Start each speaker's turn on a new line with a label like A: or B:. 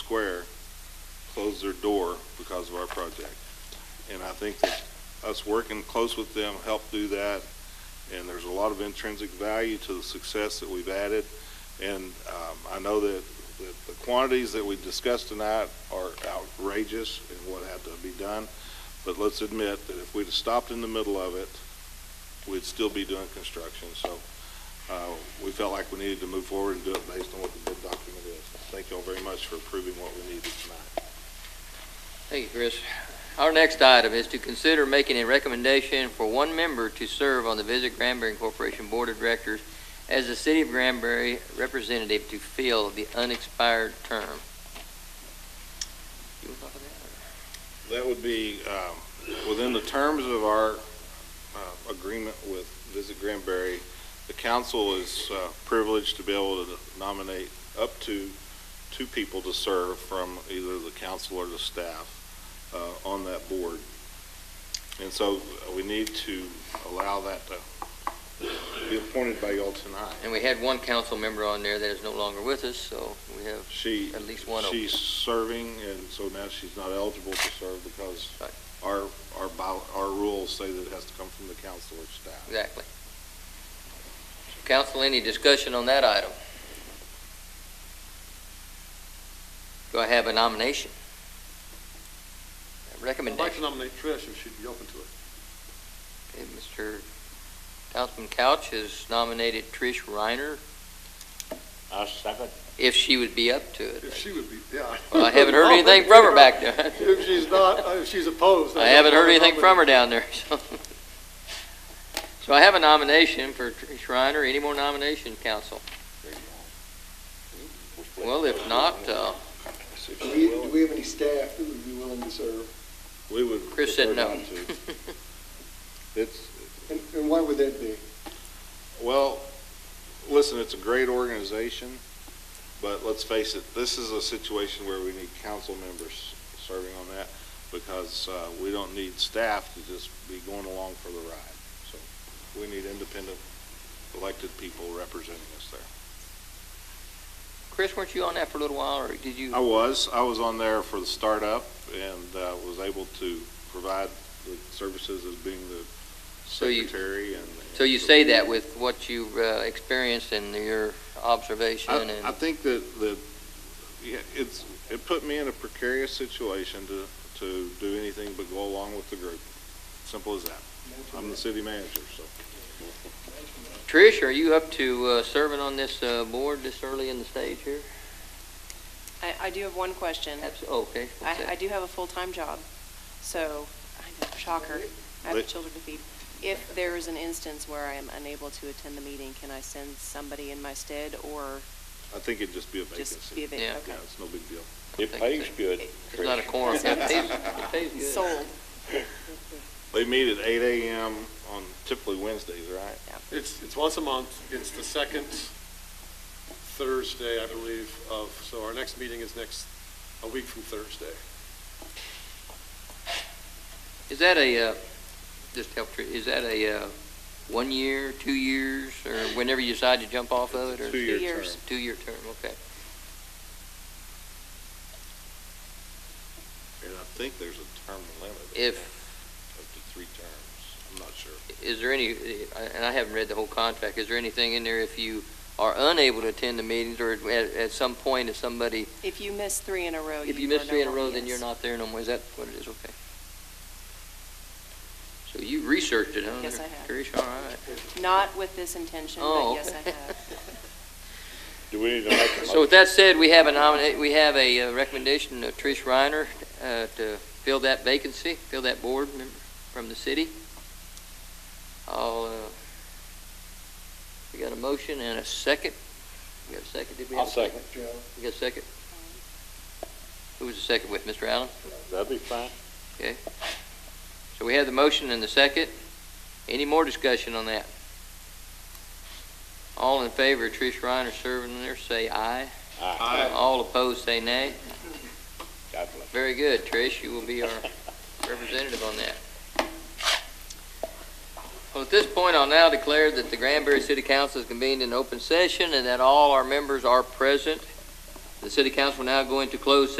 A: Square closed their door because of our project. And I think that us working close with them helped do that, and there's a lot of intrinsic value to the success that we've added. And um, I know that that the quantities that we discussed tonight are outrageous in what had to be done, but let's admit that if we'd have stopped in the middle of it, we'd still be doing construction. So uh, we felt like we needed to move forward and do it based on what the bid document is. Thank you all very much for approving what we needed tonight.
B: Thank you, Chris. Our next item is to consider making a recommendation for one member to serve on the Visit Granbury Corporation Board of Directors as the City of Granbury representative to fill the unexpired term. You wanna talk about that,
A: That would be um, within the terms of our uh, agreement with Visit Granbury. The council is uh, privileged to be able to nominate up to two people to serve from either the council or the staff uh, on that board. And so uh, we need to allow that to be appointed by y'all tonight.
B: or- And we had one council member on there that is no longer with us, so we have
A: She,
B: at least one open.
A: she's serving, and so now she's not eligible to serve because
B: Right.
A: our, our, bow- our rules say that it has to come from the council or staff.
B: Exactly. Council, any discussion on that item? Do I have a nomination? A
C: I'd like to
B: Recommendation?
C: nominate Trish if she'd be open to it.
B: Okay, Mr. Councilman Couch has nominated Trish Reiner,
D: I second.
B: if she would be up to
C: If
B: it.
C: she would be, yeah.
B: Well, I haven't heard anything from her back there.
C: If she's not, uh, if she's opposed.
B: I haven't heard anything from her down there, so. So I have a nomination for Trish Reiner. Any more nomination, council? Well, if not, uh,
E: Do we, do we have any staff that would be willing to serve?
A: We would.
B: Chris said
A: prefer
B: no.
A: not to. It's,
E: And, and why would that be?
A: well, listen, it's a great organization, but let's face it, this is a situation where we need council members serving on that because uh, we don't need staff to just be going along for the ride. So we need independent elected people representing us there.
B: Chris, weren't you on that for a little while, or did you?
A: I was. I was on there for the startup and uh, was able to provide the services as being the
B: So you-
A: secretary and.
B: So you say that with what you've uh, experienced and your observation
A: I, I
B: and,
A: think that, that, yeah, it's, it put me in a precarious situation to, to do anything but go along with the group. Simple as that. I'm the city manager, so.
B: Trish, are you up to uh, serving on this uh, board this early in the stage here?
F: I, I do have one question.
B: Abs- oh, Okay.
F: I, I
B: Okay.
F: do have a full-time job, so, I know, shocker, I
A: But-
F: have children to feed. If there is an instance where I am unable to attend the meeting, can I send somebody in my stead or
A: I think it'd just be a
F: just
A: vacancy.
F: be a bit?
B: Yeah.
A: Yeah, it's no big deal.
D: It pays good.
B: It's not a quorum. It pays- it pays
F: Okay.
B: good.
F: Sold.
A: They meet at eight AM on typically Wednesdays, right?
C: It's, it's once a month. It's the second Thursday, I believe, of, so our next meeting is next, a week from Thursday.
B: Is that a, uh, just help, Trish, is that a uh, one year, two years, or whenever you decide to jump off of it? or-
A: Two-year
F: Two years.
A: term.
B: Two-year term, okay.
A: And I think there's a term limit.
B: If-
A: Up to three terms. I'm not sure.
B: Is there any, and I haven't read the whole contract, is there anything in there if you are unable to attend the meetings or at, at some point if somebody
F: If you miss three in a row, you are no
B: If you miss three in a
F: longer-
B: row, then you're
F: yes.
B: not there no more, is that what it is, okay? So you researched it, huh?
F: Yes, I have.
B: Trish, all right.
F: Not with this intention, but
B: Oh,
F: yes, I
B: okay.
F: have.
D: Do we need to make a
B: So with that said, we have a nominate, we have a uh, recommendation of Trish Reiner uh, to fill that vacancy, fill that board member from the city. I'll, uh, we got a motion and a second. We got a second, did we?
D: I'll
B: have a
D: second.
E: Joe?
B: We got a second? Who was the second with, Mr. Allen?
D: That'd be fine.
B: So we have the motion and the second. Any more discussion on that? All in favor of Trish Reiner serving there, say aye.
D: Aye.
B: All opposed, say nay.
D: God bless.
B: Very good, Trish, you will be our representative on that. Well, at this point, I'll now declare that the Granbury City Council is convened in open session and that all our members are present. The city council will now go into closed